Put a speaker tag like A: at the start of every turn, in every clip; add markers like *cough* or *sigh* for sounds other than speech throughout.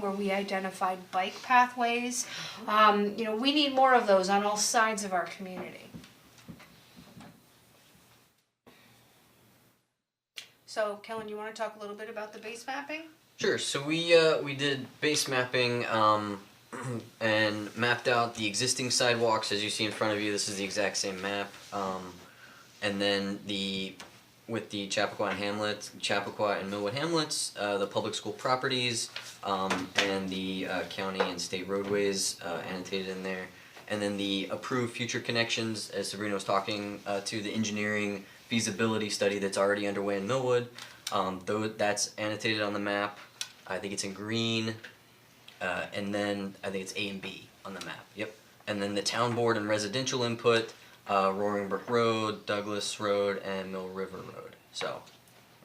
A: where we identified bike pathways. Um, you know, we need more of those on all sides of our community. So Kellen, you wanna talk a little bit about the base mapping?
B: Sure. So we uh, we did base mapping um, *clears throat* and mapped out the existing sidewalks as you see in front of you. This is the exact same map, um, and then the with the Chappaqua and Hamlet, Chappaqua and Millwood Hamlets, uh, the public school properties, um, and the uh, county and state roadways uh, annotated in there, and then the approved future connections as Sabrina was talking uh, to the engineering feasibility study that's already underway in Millwood. Um, though that's annotated on the map, I think it's in green, uh, and then I think it's A and B on the map. Yep. And then the town board and residential input, uh, Roaring Brook Road, Douglas Road, and Mill River Road. So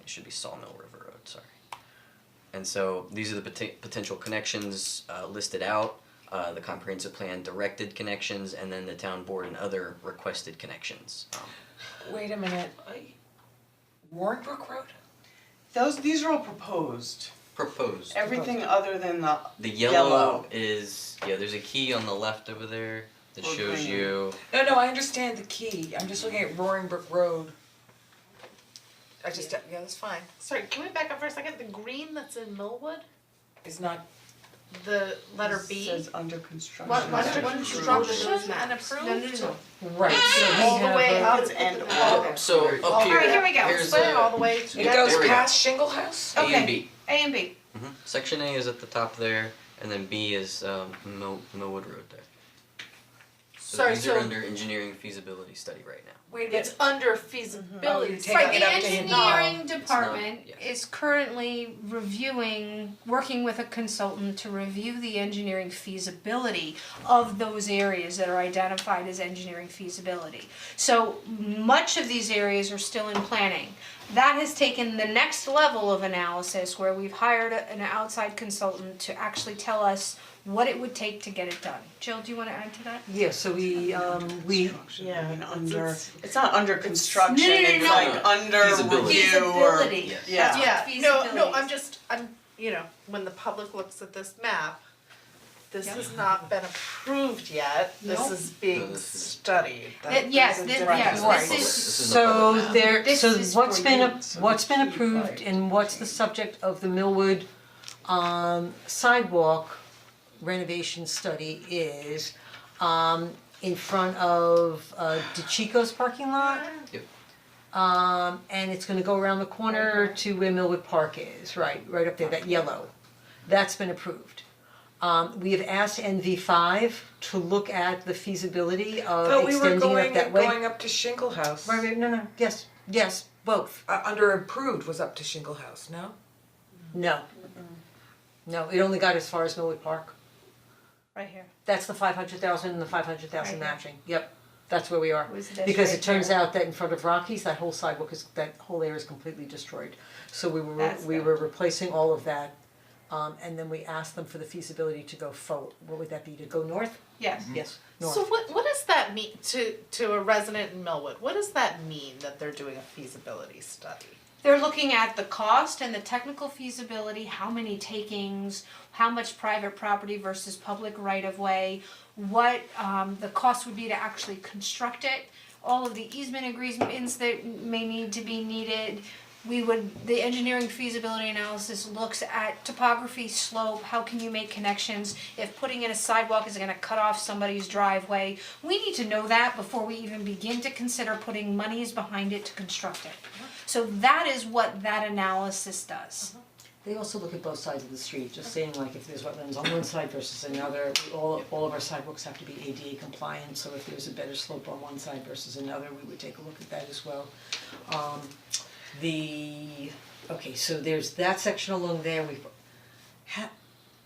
B: it should be Sawmill River Road. Sorry. And so these are the poten- potential connections uh, listed out. Uh, the comprehensive plan directed connections, and then the town board and other requested connections. Um,
C: Wait a minute, Warren Brook Road?
D: Those, these are all proposed,
B: proposed.
D: everything other than the,
B: The yellow,
D: Yellow.
B: is yeah. There's a key on the left over there that
D: Or
B: shows
D: green.
B: you.
C: No, no, I understand the key, I'm just looking at Roaring Brook Road. I just, yeah, that's fine,
E: Sorry, can we back up for a second? The green that's in Millwood,
C: it's not,
E: the letter B.
D: says under construction.
E: What, what,
D: Under
E: what
D: construction.
E: construction and approved?
A: No, no, no.
C: right, so
E: All the way
D: Up
E: up
D: and
E: to the-
D: all.
B: So up
D: Oh,
B: here.
A: alright, here we go.
B: Here's
E: Split it
B: uh,
E: all the way
C: it
E: together.
B: There
C: goes
B: we go.
C: past Shingle House?
B: A and
A: Okay.
B: B.
A: A and B,
B: Mhm. Section A is at the top there, and then B is um, Mill, Millwood Road there. So
E: Sorry,
B: these
E: so
B: are under engineering feasibility study right now.
C: Wait a minute,
E: it's under
C: Oh, you're
E: feasibility.
C: taking
A: right,
C: it
A: the
C: up to Hinnom.
A: engineering department
B: yes.
A: is currently reviewing, working with a consultant to review the engineering feasibility of those areas that are identified as engineering feasibility. So much of these areas are still in planning. That has taken the next level of analysis where we've hired a- an outside consultant to actually tell us what it would take to get it done. Jill, do you wanna add to that?
F: Yeah, so we, um, we,
D: Yeah, and
E: it's-
D: under,
E: it's-
D: it's not under construction,
A: no, no,
D: it's
A: no.
D: like under
B: Feasibility.
D: review or.
A: Feasibility.
B: Yes.
D: Yeah.
A: That's what
E: Yeah, no, no,
A: feasibility
E: I'm
A: is.
E: just, I'm, you know, when the public looks at this map, this
A: Yeah.
E: has not been approved yet, this
A: Nope.
E: is
B: No,
E: being
B: this is-
E: studied, That-
A: That- yes,
E: there's a
A: thi-
E: difference.
A: yes,
C: Right.
A: this is
B: This is the public
F: so
B: map.
F: there,
A: This
F: so
A: is
F: what's
A: for
F: been,
A: you,
F: ap-
A: so
F: what's been
A: it's cheaper.
F: approved and what's the subject of the Millwood, um, sidewalk renovation study is, um, in front of, uh, DeChico's parking lot?
B: Yep.
F: Um, and it's gonna go around the corner to where Millwood Park is, right, right up there, that yellow. That's been approved. Um, we have asked NV five to look at the feasibility
C: But
F: of
C: we were
F: uh, extending
C: going,
F: it that way.
C: going up to Shingle House.
F: Right, right, no, no, yes, yes, both,
C: Uh, under approved was up to Shingle House, no?
F: no. No, it only got as far as Millwood Park,
A: Right here.
F: that's the five hundred thousand and the five hundred thousand
A: Right.
F: matching, yep, that's where we are.
A: Was this
F: Because
A: right
F: it turns
A: here?
F: out that in front of Rockies, that whole sidewalk is, that whole area is completely destroyed. So we were,
A: That's
F: we
A: right.
F: were replacing all of that, um, and then we asked them for the feasibility to go forward, what would that be, to go north?
A: Yes.
F: Yes,
E: So
F: north,
E: what what does that mean to to a resident in Millwood? What does that mean that they're doing a feasibility study?
A: They're looking at the cost and the technical feasibility, how many takings, how much private property versus public right of way, what um the cost would be to actually construct it, all of the easement agreements that may need to be needed. We would, the engineering feasibility analysis looks at topography, slope, how can you make connections? If putting in a sidewalk is gonna cut off somebody's driveway, we need to know that before we even begin to consider putting monies behind it to construct it. So that is what that analysis does.
F: they also look at both sides of the street, just saying like if there's wetlands on one side versus another, we all, all of our sidewalks have to be ADA compliant, so if there's a better slope on one side versus another, we would take a look at that as well. Um, the, okay, so there's that section along there, we've, ha,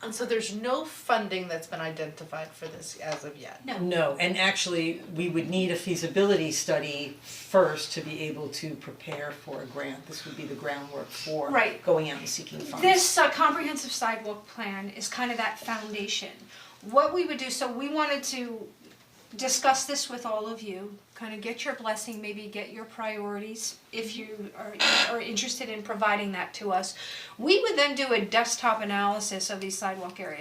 E: And so there's no funding that's been identified for this as of yet.
F: No, and actually, we would need a feasibility study first to be able to prepare for a grant. This would be the groundwork for
A: Right.
F: going out and seeking funds.
A: This uh, comprehensive sidewalk plan is kind of that foundation. What we would do, so we wanted to discuss this with all of you, kind of get your blessing, maybe get your priorities if you are, are interested in providing that to us. We would then do a desktop analysis of these sidewalk areas.